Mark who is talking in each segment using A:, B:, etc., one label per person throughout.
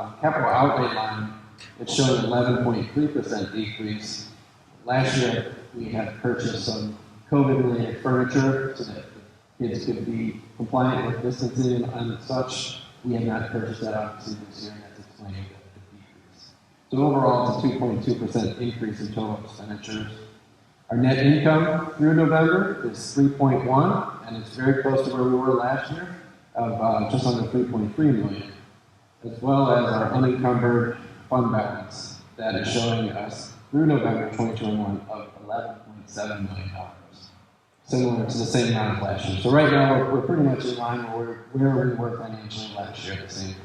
A: On the capital outlay line, it's showing an eleven point three percent decrease. Last year, we had purchased some COVID-related furniture so that the kids could be compliant with distancing and such. We have not purchased that obviously this year, and that's explaining the the decrease. So overall, it's a two point two percent increase in total expenditures. Our net income through November is three point one, and it's very close to where we were last year of uh, just under three point three million, as well as our unencumbered fund balance that is showing us through November twenty twenty-one of eleven point seven million dollars, similar to the same amount of last year. So right now, we're, we're pretty much in line where, where we were financially last year at the same time.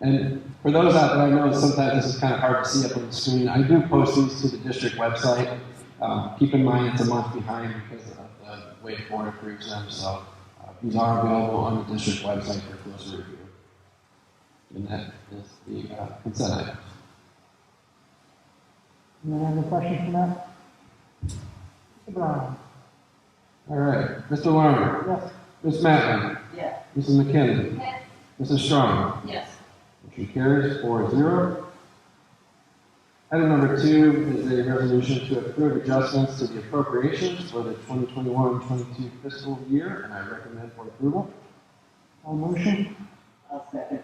A: And for those out there, I know sometimes this is kind of hard to see up on the screen. I do post these to the district website. Um, keep in mind it's a month behind because of the way board approves them. So uh, these are available on the district website for closer review. And that is the uh, consent item.
B: Anyone have any questions from that? Mr. Brown?
A: All right, Mr. Lerner,
B: Yes.
A: Ms. Matlin,
C: Yes.
A: Mrs. McKinney,
C: Yes.
A: Mrs. Strong.
C: Yes.
A: Motion carries four zero. Item number two is a resolution to approve adjustments to the appropriations for the 2021-22 fiscal year, and I recommend for approval.
B: On motion?
C: I'll second.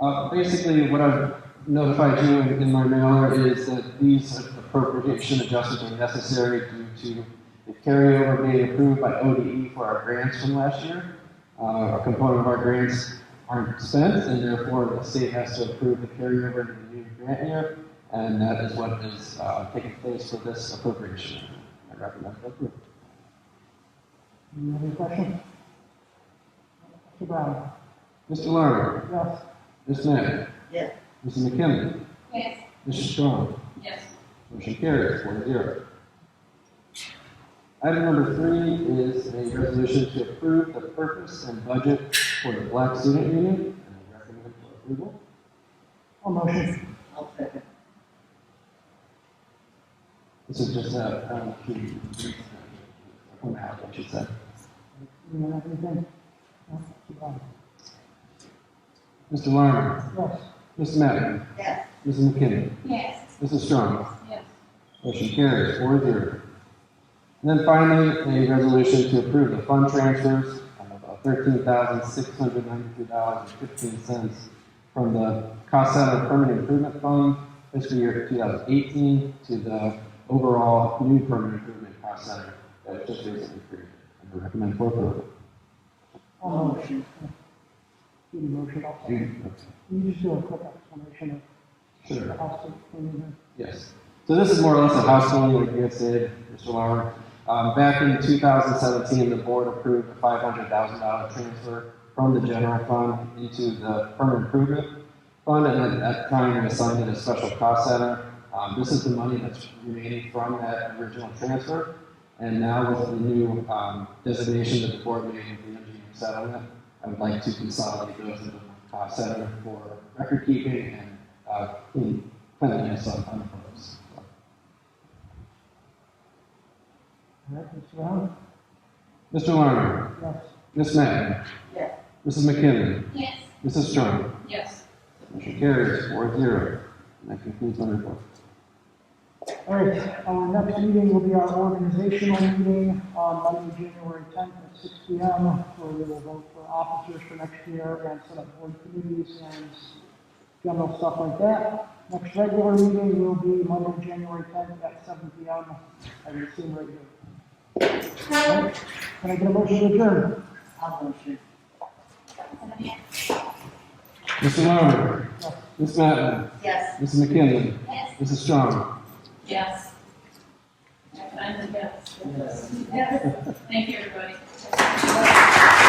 A: Uh, Basically, what I've notified you in in my mailer is that these appropriation adjustments are necessary due to the carryover being approved by ODE for our grants from last year. Uh, A component of our grants aren't spent, and therefore the state has to approve the carryover into the new grant year, and that is what is uh, taking place with this appropriation. I recommend approval.
B: Anyone have any questions? Mr. Brown?
A: Mr. Lerner,
B: Yes.
A: Ms. Knapp,
C: Yes.
A: Mrs. McKinley,
C: Yes.
A: Mrs. Strong.
C: Yes.
A: Motion carries four zero. Item number three is a resolution to approve the purpose and budget for the Black Student Union. And I recommend for approval.
B: On motion?
C: I'll second.
A: This is just a, um, to- from how I should say.
B: Anyone have anything? No? Mr. Brown?
A: Mr. Larmour,
B: Yes.
A: Ms. Madden,
C: Yes.
A: Mrs. McKinney,
C: Yes.
A: Mrs. Strong.
C: Yes.
A: Motion carries four zero. And then finally, a resolution to approve the fund transfers of thirteen thousand six hundred ninety-two dollars and fifteen cents from the cost center permanent improvement fund fiscal year two thousand eighteen to the overall new permanent improvement cost center that was just recently created. I recommend for approval.
B: On motion? Do the motion, I'll second. Can you just do a quick explanation of the
A: Sure.
B: cost of cleaning
A: Yes. So this is more or less a house loan, like you had said, Mr. Lauer. Um, back in 2017, the board approved a $500,000 transfer from the general fund into the permanent improvement fund, and at that time, we assigned it a special cost center. Um, this is the money that's remaining from that original transfer, and now with the new, um, designation that the board made of the engineering settlement, I would like to consolidate those into one cost center for record keeping and, uh, clean cleanliness on, on purpose.
B: All right, Mr. Brown?
A: Mr. Lerner,
B: Yes.
A: Ms. Madden,
C: Yes.
A: Mrs. McKinley,
C: Yes.
A: Mrs. Strong,
C: Yes.
A: motion carries four zero. And that concludes my report.
B: All right, our uh, next meeting will be our organizational meeting on Monday, January tenth at six P M, where we will vote for officers for next year and set up board committees and general stuff like that. Next regular meeting will be Monday, January tenth at seven P M, I will assume right here. All right, Can I get a motion to adjourn?
C: I'll motion.
A: Mr. Lerner, Ms. Madden,
C: Yes.
A: Mrs. McKinley,
C: Yes.
A: Mrs. Strong,
D: Yes. I'm the best. Yes. Thank you, everybody.